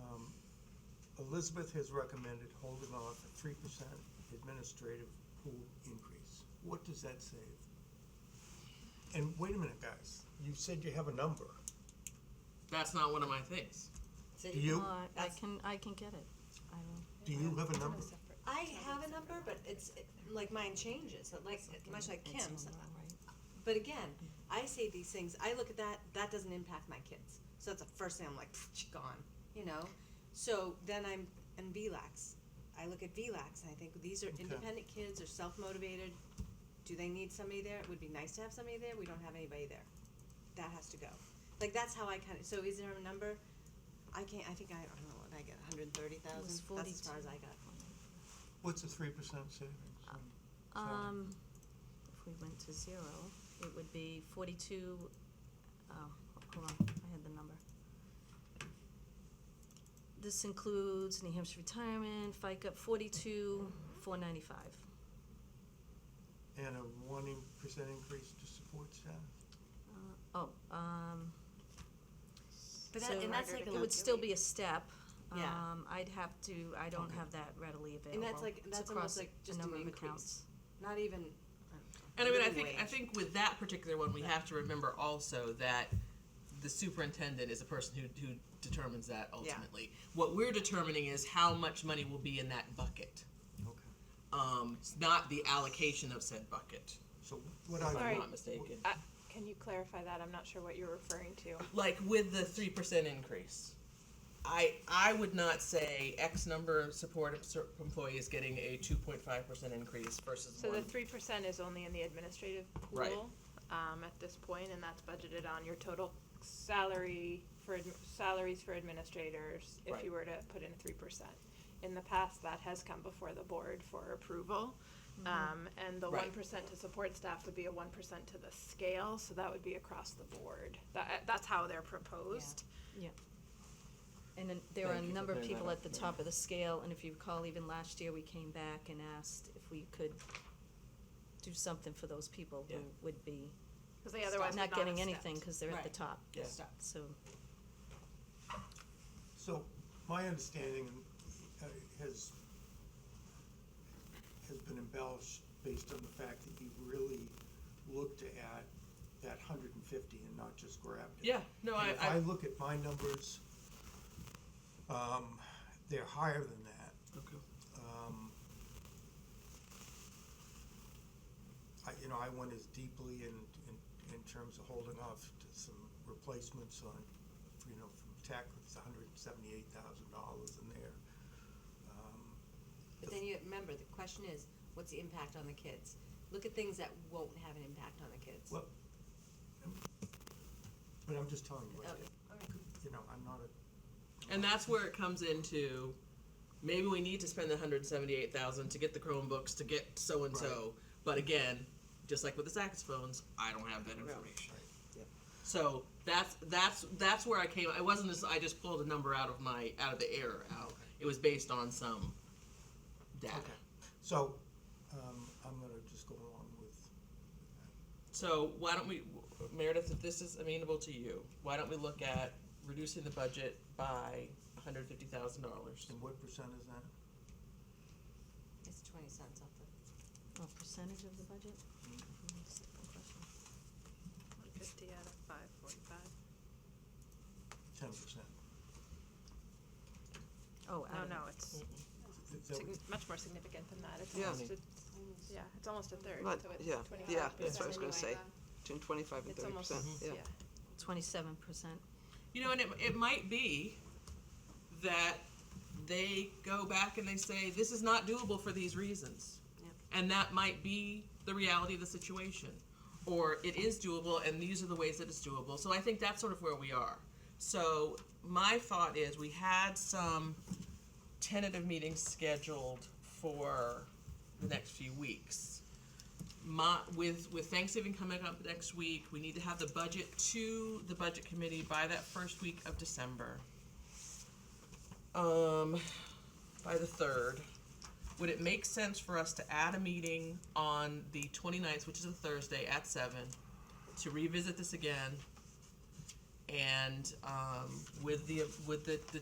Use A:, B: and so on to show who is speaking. A: Um, Elizabeth has recommended holding off a three percent administrative pool increase. What does that save? And wait a minute, guys, you said you have a number.
B: That's not one of my things.
A: Do you,
C: Uh, I
D: That's-
C: can, I can get it. I will.
A: do you have a number?
D: I have a number, but it's, it- like, mine changes, so like, much like
C: It's
D: Kim's.
C: all right.
D: But again, I say these things, I look at that, that doesn't impact my kids. So that's the first thing I'm like, "Pfft, gone, you know? So then I'm, and VLAX, I look at VLAX and I think, these are
A: Okay.
D: independent kids, they're self-motivated. Do they need somebody there? It would be nice to have somebody there, we don't have anybody there. That has to go. Like, that's how I kinda, so is there a number? I can't, I think I, I don't know, what I get hundred and thirty
C: It was
D: thousand, that's as far
C: 42.
D: as I got.
A: What's a three percent savings?
C: Uh.
A: So-
C: Um, if we went to zero, it would be forty-two, oh, hold on, I had the number. This includes New Hampshire retirement, FICA, forty-two, four ninety-five.
A: And a one in- percent increase to support staff?
C: Oh, um,
D: But
C: So
D: that, and that's like a
C: it would still be a step.
D: Yeah.
C: Um, I'd have to, I don't
A: Okay.
C: have that readily available.
D: And that's like-
C: It's
D: that's almost
C: across
D: like
C: a
D: just an
C: number of
D: increase.
C: accounts.
D: not even.
B: And I mean, I
D: Living
B: think I
D: wage.
B: think with that particular one, we have to remember also that the superintendent is a person who who determines that ultimately. What we're determining is how much money will be in that bucket,
A: Okay.
B: um, not the allocation of said bucket.
A: So what
B: If
A: I,
B: I'm
E: Sorry.
B: not mistaken,
E: Can you clarify that? I'm not sure what you're referring to.
B: like with the three percent increase. I, I would not say X number of support ser- employees getting a 2.5% increase versus
E: So the
B: one.
E: three percent is only in the administrative
B: Right.
E: pool, um, at this point, and that's budgeted on your total salary for, adm- salaries for administrators, if you were to put in three percent. In the past, that has come before the board for approval,
C: Mm-hmm.
E: um, and the
B: Right.
E: one percent to support staff would be a one percent to the scale, so that would be across the board. That, uh, that's how they're proposed.
C: And then there are
B: Thank you
C: a
B: for
C: number of
B: clearing that
C: people
B: up,
C: at the
B: yeah.
C: top of the scale, and if you recall, even last year, we came back and asked if we could do something for those people who
B: Yeah.
C: would be
E: Cause they otherwise would
C: not
E: not have
C: getting anything,
E: stepped.
C: because they're at the
D: Right.
C: top,
B: Yeah.
C: so.
A: so my understanding uh, has, has been embellished based on the fact that you really looked at that hundred and fifty and not just grabbed it.
B: Yeah, no, I,
A: And If
B: I,
A: I look at my numbers, um, they're higher than that.
B: okay.
A: Um, I, you know, I went as deeply in, in, in terms of holding off to some replacements on, you know, from tech, it's hundred and seventy-eight thousand dollars in there. Um,
D: But then you remember, the question is, what's the impact on the kids? Look at things that won't have an impact on the kids.
A: Well, But I'm just telling you, what
D: Okay,
A: it-
D: all right.
A: you know, I'm not a,
B: And that's where it comes into maybe we need to spend the 178,000 to get the Chromebooks to get so and so. But again, just like with the saxophones, I don't have that information.
A: Right.
B: So that's that's that's where I came. It wasn't as I just pulled a number out of my out of the air out. It was based on some data.
A: Okay. so, um, I'm gonna just go along with,
B: So why don't we, Meredith, if this is amenable to you, why don't we look at reducing the budget by $150,000?
A: and what percent is that?
D: It's twenty cents off the,
C: A percentage of the budget? That's a different question.
E: One fifty out of five forty-five.
A: Ten percent.
C: Oh, out
E: No,
C: of-
E: no, it's signi- much more significant than that. It's
F: Yeah.
E: almost, a- yeah, it's almost a third,
F: But,
E: so
F: yeah,
E: it's
F: yeah,
E: twenty-five
F: that's what I was
E: percent.
F: gonna say, between twenty-five and
E: It's
F: thirty
E: almost,
F: percent, yeah.
E: yeah.
C: twenty-seven percent.
B: You know, and it, it might be that they go back and they say, this is not doable for these reasons.
D: Yep.
B: And that might be the reality of the situation. Or it is doable and these are the ways that it's doable. So I think that's sort of where we are. So my thought is we had some tentative meetings scheduled for the next few weeks. My, with, with Thanksgiving coming up next week, we need to have the budget to the budget committee by that first week of December. Um, by the third. Would it make sense for us to add a meeting on the 29th, which is a Thursday at seven, to revisit this again? And, um, with the, with the, the